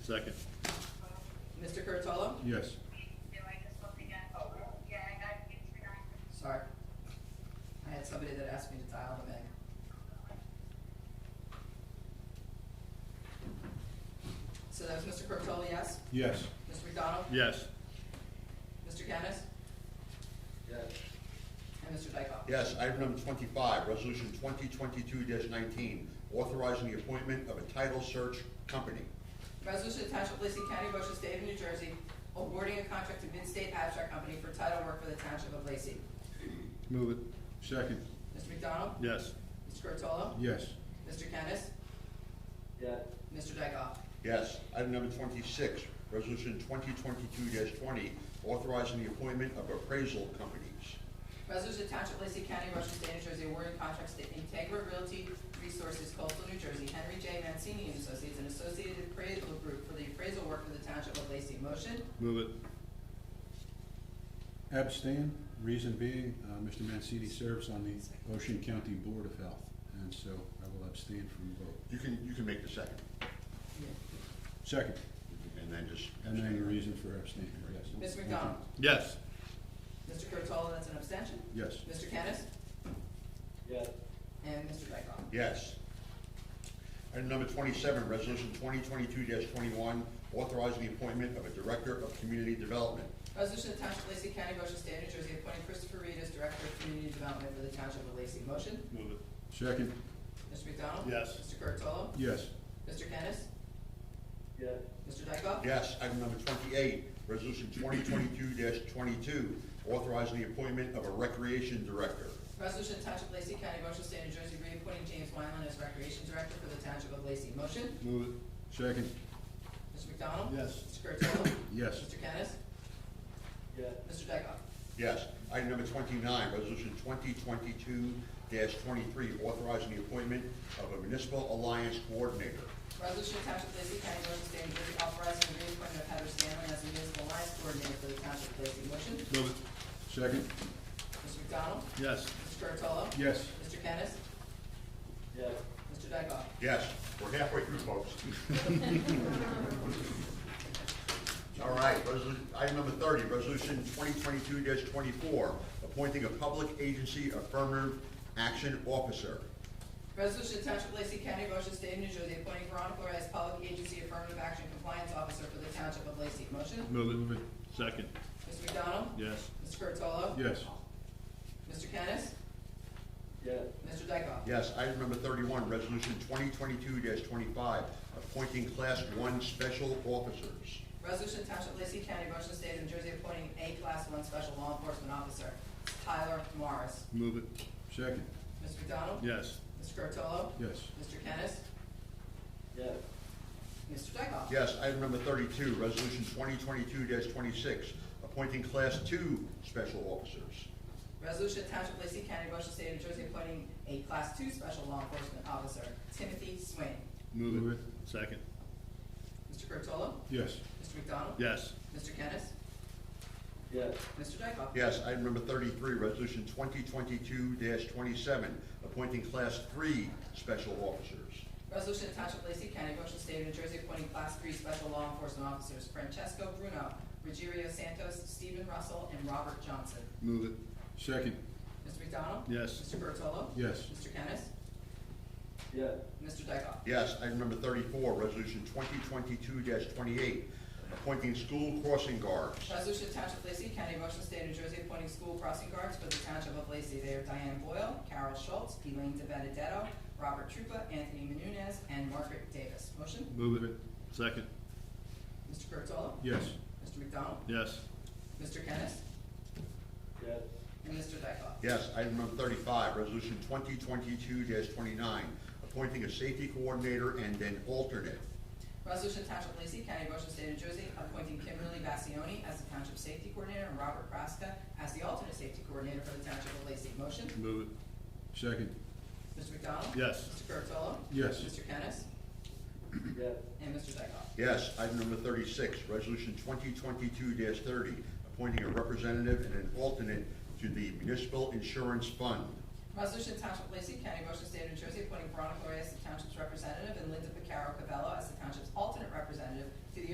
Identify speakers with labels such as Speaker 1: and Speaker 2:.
Speaker 1: Second.
Speaker 2: Mr. Curatolo?
Speaker 1: Yes.
Speaker 2: Sorry. I had somebody that asked me to dial them in. So that was Mr. Curatolo, yes?
Speaker 1: Yes.
Speaker 2: Mr. McDonald?
Speaker 1: Yes.
Speaker 2: Mr. Kennis?
Speaker 3: Yes.
Speaker 2: And Mr. Dykoff?
Speaker 3: Yes, item number twenty-five, resolution twenty twenty-two nineteen, authorizing the appointment of a title search company.
Speaker 2: Resolution to Township of Lacey County, Ocean State of New Jersey, awarding a contract to Midstate Abstract Company for title work for the Township of Lacey.
Speaker 1: Move it. Second.
Speaker 2: Mr. McDonald?
Speaker 1: Yes.
Speaker 2: Mr. Curatolo?
Speaker 1: Yes.
Speaker 2: Mr. Kennis?
Speaker 4: yes,
Speaker 2: Mr. Dykoff?
Speaker 3: Yes, item number twenty-six, resolution twenty twenty-two twenty, authorizing the appointment of appraisal companies.
Speaker 2: Resolution to Township of Lacey County, Washington State, New Jersey, awarding contracts to Integra Realty Resources Coastal New Jersey, Henry J. Mancini and Associates, and Associated Appraisal Group for the appraisal work for the Township of Lacey. Motion?
Speaker 1: Move it.
Speaker 5: Abstain, reason being, uh, Mr. Mancini serves on the Ocean County Board of Health, and so I will abstain from the vote.
Speaker 3: You can, you can make the second,
Speaker 5: Second,
Speaker 3: and then just.
Speaker 5: and then the reason for abstaining, yes.
Speaker 2: Mr. McDonald?
Speaker 1: Yes.
Speaker 2: Mr. Curatolo, that's an abstention?
Speaker 5: Yes.
Speaker 2: Mr. Kennis?
Speaker 4: yes,
Speaker 2: And Mr. Dykoff?
Speaker 3: Yes. Item number twenty-seven, resolution twenty twenty-two twenty-one, authorizing the appointment of a director of community development.
Speaker 2: Resolution to Township of Lacey County, Washington State, New Jersey, appointing Christopher Reed as Director of Community Development for the Township of Lacey. Motion?
Speaker 1: Move it.
Speaker 5: Second,
Speaker 2: Mr. McDonald?
Speaker 1: Yes.
Speaker 2: Mr. Curatolo?
Speaker 5: yes.
Speaker 2: Mr. Kennis?
Speaker 4: yes,
Speaker 2: Mr. Dykoff?
Speaker 3: Yes, item number twenty-eight, resolution twenty twenty-two twenty-two, authorizing the appointment of a recreation director.
Speaker 2: Resolution to Township of Lacey County, Ocean State, New Jersey, reappointing James Wyland as Recreation Director for the Township of Lacey. Motion?
Speaker 1: Move it.
Speaker 5: Second,
Speaker 2: Mr. McDonald?
Speaker 1: Yes.
Speaker 2: Mr. Curatolo?
Speaker 5: yes.
Speaker 2: Mr. Kennis?
Speaker 4: yes,
Speaker 2: Mr. Dykoff?
Speaker 3: Yes, item number twenty-nine, resolution twenty twenty-two twenty-three, authorizing the appointment of a municipal alliance coordinator.
Speaker 2: Resolution to Township of Lacey County, Ocean State, New Jersey, authorizing the reappointment of Heather Stanley as Municipal Alliance Coordinator for the Township of Lacey. Motion?
Speaker 1: Move it.
Speaker 5: Second,
Speaker 2: Mr. McDonald?
Speaker 1: Yes.
Speaker 2: Mr. Curatolo?
Speaker 5: yes.
Speaker 2: Mr. Kennis?
Speaker 4: yes,
Speaker 2: Mr. Dykoff?
Speaker 3: Yes, we're halfway through, folks. All right, resolution, item number thirty, resolution twenty twenty-two twenty-four, appointing a public agency affirmative action officer.
Speaker 2: Resolution to Township of Lacey County, Ocean State, New Jersey, appointing Veronica Flores as Public Agency Affirmative Action Compliance Officer for the Township of Lacey. Motion?
Speaker 1: Move it. Move it. Second.
Speaker 2: Mr. McDonald?
Speaker 1: Yes.
Speaker 2: Mr. Curatolo?
Speaker 5: Yes.
Speaker 2: Mr. Kennis?
Speaker 4: yes,
Speaker 2: Mr. Dykoff?
Speaker 3: Yes, item number thirty-one, resolution twenty twenty-two twenty-five, appointing class one special officers.
Speaker 2: Resolution Township of Lacey County, Ocean State, New Jersey, appointing a Class One Special Law Enforcement Officer, Tyler Morris.
Speaker 1: Move it.
Speaker 5: Second,
Speaker 2: Mr. McDonald?
Speaker 1: Yes.
Speaker 2: Mr. Curatolo?
Speaker 5: yes.
Speaker 2: Mr. Kennis?
Speaker 4: yes,
Speaker 2: Mr. Dykoff?
Speaker 3: Yes, item number thirty-two, resolution twenty twenty-two twenty-six, appointing class two special officers.
Speaker 2: Resolution Township of Lacey County, Ocean State, New Jersey, appointing a Class Two Special Law Enforcement Officer, Timothy Swain.
Speaker 1: Move
Speaker 5: Move
Speaker 1: it. Second.
Speaker 2: Mr. Curatolo?
Speaker 5: Yes.
Speaker 2: Mr. McDonald?
Speaker 1: Yes.
Speaker 2: Mr. Kennis?
Speaker 4: yes,
Speaker 2: Mr. Dykoff?
Speaker 3: Yes, item number thirty-three, resolution twenty twenty-two twenty-seven, appointing class three special officers.
Speaker 2: Resolution to Township of Lacey County, Ocean State, New Jersey, appointing Class Three Special Law Enforcement Officers Francesco Bruno, Rogerio Santos, Stephen Russell, and Robert Johnson.
Speaker 1: Move it.
Speaker 5: Second,
Speaker 2: Mr. McDonald?
Speaker 1: Yes.
Speaker 2: Mr. Curatolo?
Speaker 5: yes.
Speaker 2: Mr. Kennis?
Speaker 4: yes,
Speaker 2: Mr. Dykoff?
Speaker 3: Yes, item number thirty-four, resolution twenty twenty-two twenty-eight, appointing school crossing guards.
Speaker 2: Resolution to Township of Lacey County, Ocean State, New Jersey, appointing school crossing guards for the Township of Lacey. They are Diane Boyle, Carol Schultz, Elaine De Benedetto, Robert Trupa, Anthony Menunez, and Margaret Davis. Motion?
Speaker 1: Move it. Second.
Speaker 2: Mr. Curatolo?
Speaker 5: Yes.
Speaker 2: Mr. McDonald?
Speaker 1: Yes.
Speaker 2: Mr. Kennis?
Speaker 4: yes,
Speaker 2: And Mr. Dykoff?
Speaker 3: Yes, item number thirty-five, resolution twenty twenty-two twenty-nine, appointing a safety coordinator and an alternate.
Speaker 2: Resolution to Township of Lacey County, Ocean State, New Jersey, appointing Kimberly Bassioni as the Township Safety Coordinator and Robert Praska as the alternate safety coordinator for the Township of Lacey. Motion?
Speaker 1: Move it.
Speaker 5: Second,
Speaker 2: Mr. McDonald?
Speaker 1: Yes.
Speaker 2: Mr. Curatolo?
Speaker 5: yes.
Speaker 2: Mr. Kennis?
Speaker 4: yes,
Speaker 2: And Mr. Dykoff?
Speaker 3: Yes, item number thirty-six, resolution twenty twenty-two thirty, appointing a representative and an alternate to the municipal insurance fund.
Speaker 2: Resolution to Township of Lacey County, Ocean State, New Jersey, appointing Veronica Correa as the Township's representative and Linda Picaro Cavello as the Township's alternate representative